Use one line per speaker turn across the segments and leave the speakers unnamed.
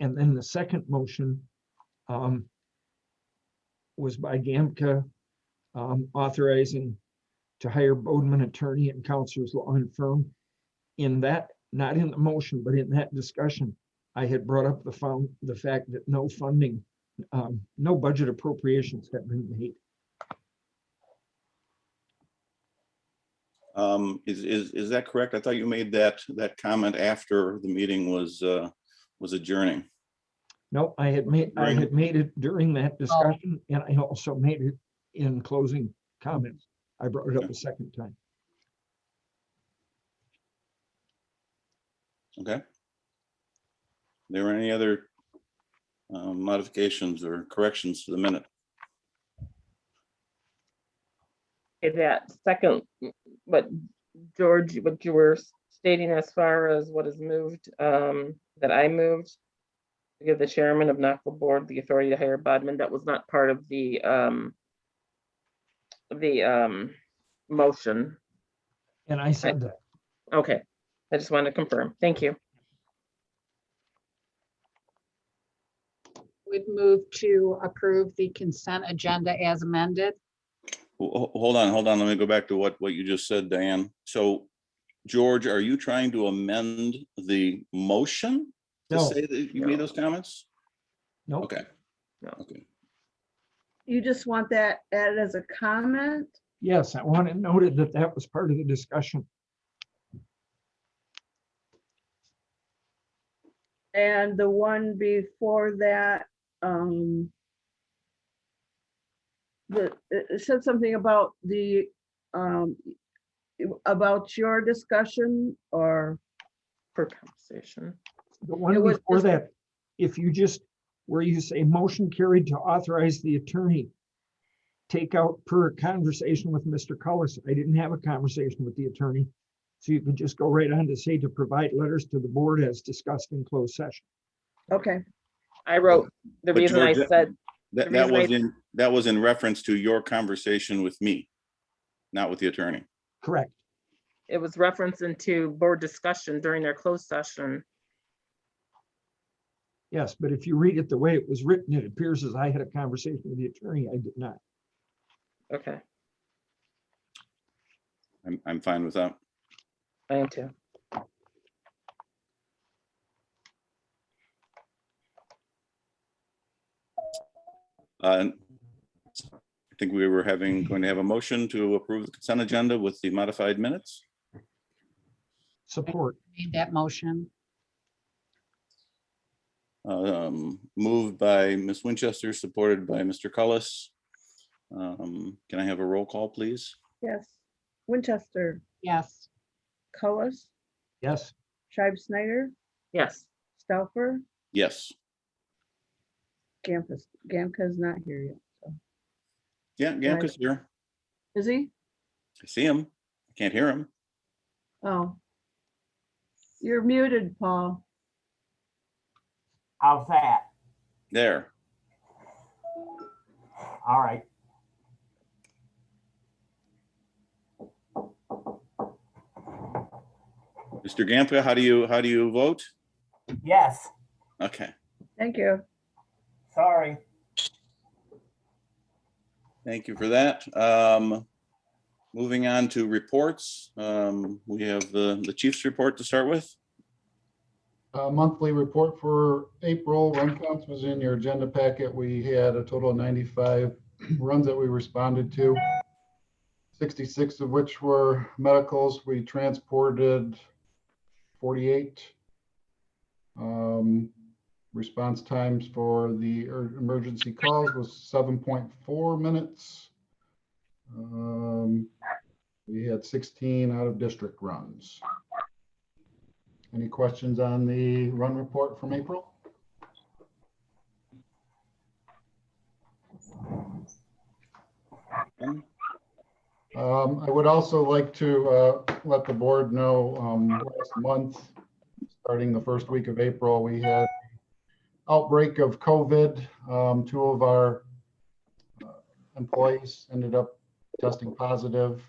And then the second motion um, was by Gamka um, authorizing to hire Boardman attorney and counselor's law and firm. In that, not in the motion, but in that discussion, I had brought up the found, the fact that no funding, um, no budget appropriations have been made.
Um, is, is, is that correct? I thought you made that, that comment after the meeting was, uh, was adjourning.
No, I had made, I
Right.
had made it during that discussion and I also made it in closing comments. I brought it up a second time.
Okay. There were any other uh, modifications or corrections to the minute?
Okay, that second, but George, what you were stating as far as what is moved, um, that I moved. to Give the chairman of NACO board the authority to hire Bodman, that was not part of the, um. The, um, motion,
And I said that.
okay, I just wanted to confirm, thank you.
Would move to approve the consent agenda as amended.
Ho- ho- Hold on, hold on. Let me go back to what, what you just said, Diane. So George, are you trying to amend the motion to
No,
say that you made those comments?
no.
Okay.
No.
Okay.
You just want that added as a comment?
Yes, I wanted noted that that was part of the discussion.
And the one before that, um, the, it it said something about the, um, about your discussion or,
For conversation,
The one
It was
before
just-
that, if you just, where you say motion carried to authorize the attorney, take out per conversation with Mr. Cullis. I didn't have a conversation with the attorney. So you can just go right on to say to provide letters to the board as discussed in closed session.
okay,
I wrote, the
But
reason I
George,
said,
That,
The
that
reason I-
was in, that was in reference to your conversation with me, not with the attorney.
Correct.
it was referenced into board discussion during their closed session.
Yes, but if you read it the way it was written, it appears as I had a conversation with the attorney. I did not.
Okay,
I'm, I'm fine with that.
I am too.
Uh, I think we were having, going to have a motion to approve the consent agenda with the modified minutes.
Support.
Made that motion.
Um, Moved by Ms. Winchester, supported by Mr. Cullis. Um, Can I have a roll call, please?
yes. Winchester,
Yes.
Cullis,
Yes.
Shive Snyder,
Yes,
Stouffer,
Yes.
Gamkus, Gamka's not here yet.
Yeah, Gamka's here.
Is he?
I see him. I Can't hear him.
Oh. You're muted, Paul.
How's that?
There.
All right.
Mr. Gamka, how do you, how do you vote?
Yes,
Okay,
Thank you.
sorry.
thank you for that. Um, Moving on to reports, um, we have the, the chief's report to start with.
Uh, monthly report for April, run counts was in your agenda packet. We had a total of ninety-five runs that we responded to. Sixty-six of which were medicals. We transported forty-eight. Um, response times for the er- emergency calls was seven point four minutes. Um, we had sixteen out-of-district runs. Any questions on the run report from April? Um, I would also like to, uh, let the board know, um, last month, starting the first week of April, we had outbreak of COVID. Um, two of our uh, employees ended up testing positive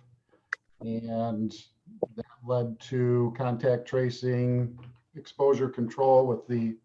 and that led to contact tracing, exposure control with the